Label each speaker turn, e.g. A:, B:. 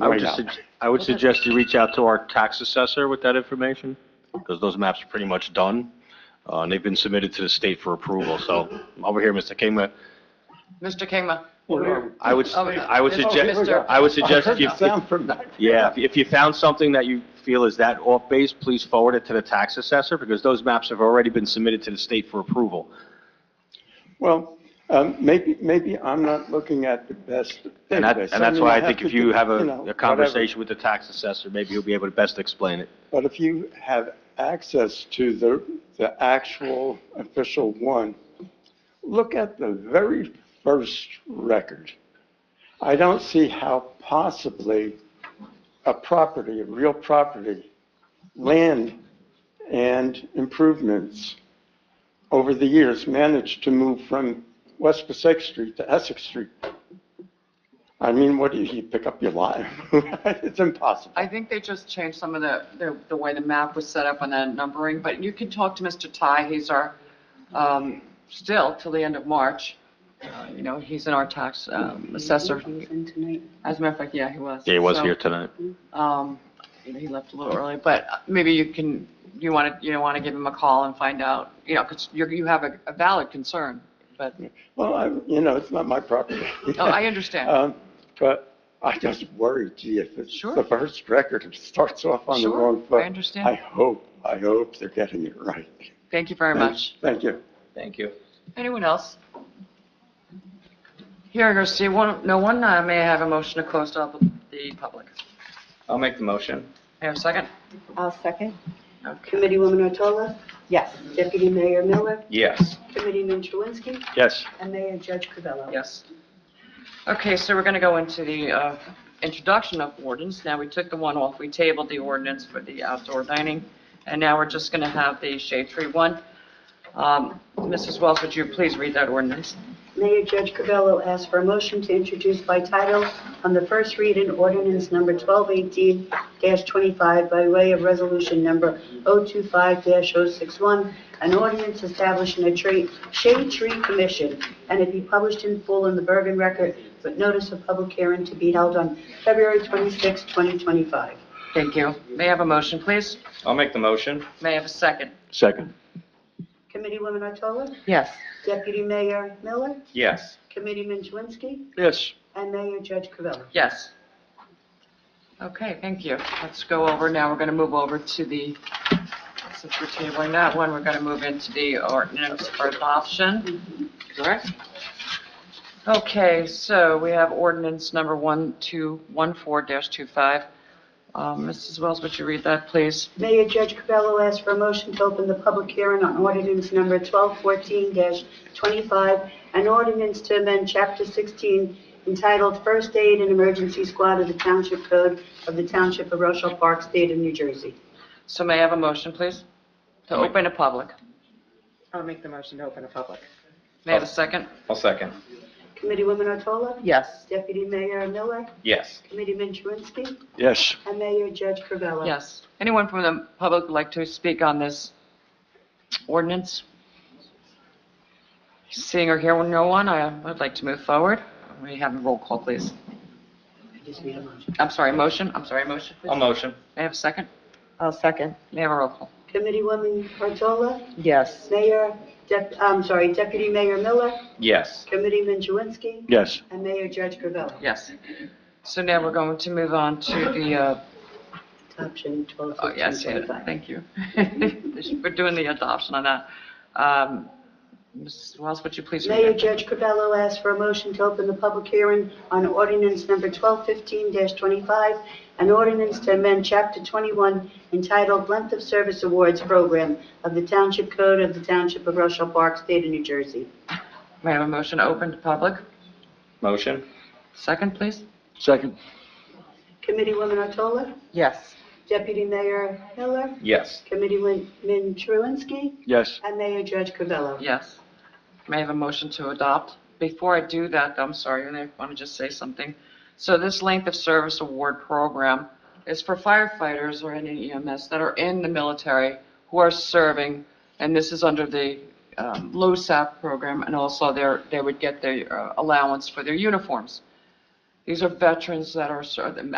A: I would
B: right
A: just,
B: now.
A: sug- I would suggest you reach out to our tax assessor with that information, because those maps are pretty much done, uh, and they've been submitted to the state for approval. So over here, Mr. Kingman,
C: Mr. Kingma,
A: I would,
C: Oh,
A: I would
C: Mr.
A: suggest,
C: Mr.
A: I would suggest if you,
B: I heard the sound from back.
A: yeah, if- if you found something that you feel is that off base, please forward it to the tax assessor, because those maps have already been submitted to the state for approval.
B: Well, um, maybe, maybe I'm not looking at the best
A: And that,
B: database.
A: and that's
B: mean,
A: why I
B: have
A: think
B: to
A: if you
B: do,
A: have
B: you
A: a,
B: know,
A: a
B: whatever.
A: conversation with the tax assessor, maybe he'll be able to best explain it.
B: But if you have access to the, the actual official one, look at the very first record. I don't see how possibly a property, a real property, land and improvements over the years managed to move from West Passaic Street to Essex Street. I mean, what do you, you pick up your lot? It's impossible.
C: I think they just changed some of the, the, the way the map was set up and the numbering, but you can talk to Mr. Ty, he's our, um, still till the end of March. Uh, You know, he's in our tax um, assessor. As a matter of fact, yeah, he was.
A: Yeah, he was
C: So,
A: here tonight.
C: Um, he left a little early, but uh, maybe you can, you want to, you want to give him a call and find out, you know, because you, you have a a valid concern, but,
B: Well, I, you know, it's not my property.
C: oh, I understand.
B: Um, But I just worry, gee, if it's
C: Sure.
B: the first record, it starts off on the
C: Sure,
B: wrong
C: I
B: foot.
C: understand.
B: I hope, I hope they're getting it right.
C: Thank you very much.
B: Thank you.
A: Thank you.
C: Anyone else? Hearing or seeing one, no one, uh, may I have a motion to close to the- the public?
A: I'll make the motion.
C: May I have a second?
D: I'll second.
C: Okay.
D: Committee Woman Otola? Yes. Deputy Mayor Miller?
A: Yes.
D: Committeeman Truinsky?
A: Yes.
D: And Mayor Judge Covello?
C: Yes. Okay, so we're going to go into the uh, introduction of ordinance. Now, we took the one off, we tabled the ordinance for the outdoor dining, and now we're just going to have the shade tree one. Um, Mrs. Wells, would you please read that ordinance?
D: Mayor Judge Covello asks for a motion to introduce by title on the first reading ordinance number 1218-25 by way of resolution number 025-061, an ordinance establishing a tree- shade tree commission, and it be published in full in the Bergen Record with notice of public hearing to be held on February 26, 2025.
C: Thank you. May I have a motion, please?
E: I'll make the motion.
C: May I have a second?
A: Second.
D: Committeewoman Otola?
C: Yes.
D: Deputy Mayor Miller?
E: Yes.
D: Committeeman Twinsky?
A: Yes.
D: And Mayor Judge Covello.
C: Yes. Okay, thank you. Let's go over, now we're going to move over to the, since we're tabling that one, we're going to move into the ordinance for adoption, correct? Okay, so we have ordinance number 1214-25. Um, Mrs. Wells, would you read that, please?
D: Mayor Judge Covello asks for a motion to open the public hearing on ordinance number 1214-25, an ordinance to amend Chapter 16 entitled First Aid and Emergency Squad of the Township Code of the Township of Rochelle Park, State of New Jersey.
C: So may I have a motion, please? To open to public.
F: I'll make the motion to open a public.
C: May I have a second?
E: I'll second.
D: Committeewoman Otola?
F: Yes.
D: Deputy Mayor Miller?
E: Yes.
D: Committeeman Truinsky?
B: Yes.
D: And Mayor Judge Covello.
C: Yes. Anyone from the public would like to speak on this ordinance? Seeing or hearing no one, I would like to move forward. We have a roll call, please.
D: I just need a motion.
C: I'm sorry, motion, I'm sorry, motion,
E: I'll
C: please.
E: motion.
C: May I have a second?
F: I'll second.
C: May I have a roll call?
D: Committeewoman Otola?
F: Yes.
D: Mayor, Dep- I'm sorry, Deputy Mayor Miller,
E: Yes.
D: Committeeman Julinski,
B: Yes.
D: and Mayor Judge Covello.
C: Yes. So now we're going to move on to the, uh,
D: Adoption 12,
C: oh, yes, yeah,
D: 15,
C: thank you. We're doing the adoption on that. Um, Mrs. Wells, would you please read
D: Mayor
C: it?
D: Judge Covello asks for a motion to open the public hearing on ordinance number 1215-25, an ordinance to amend Chapter 21 entitled Length of Service Awards Program of the Township Code of the Township of Rochelle Park, State of New Jersey.
C: May I have a motion open to public?
E: Motion.
C: Second, please?
B: Second.
D: Committeewoman Otola,
F: Yes.
D: Deputy Mayor Miller,
E: Yes.
D: Committeeman Truinsky,
B: Yes.
D: and Mayor Judge Covello.
C: Yes. May I have a motion to adopt? Before I do that, I'm sorry, and I want to just say something. So this length of service award program is for firefighters or any EMS that are in the military who are serving, and this is under the um, LoSAP program, and also their, they would get their uh, allowance for their uniforms. These are veterans that are, ser-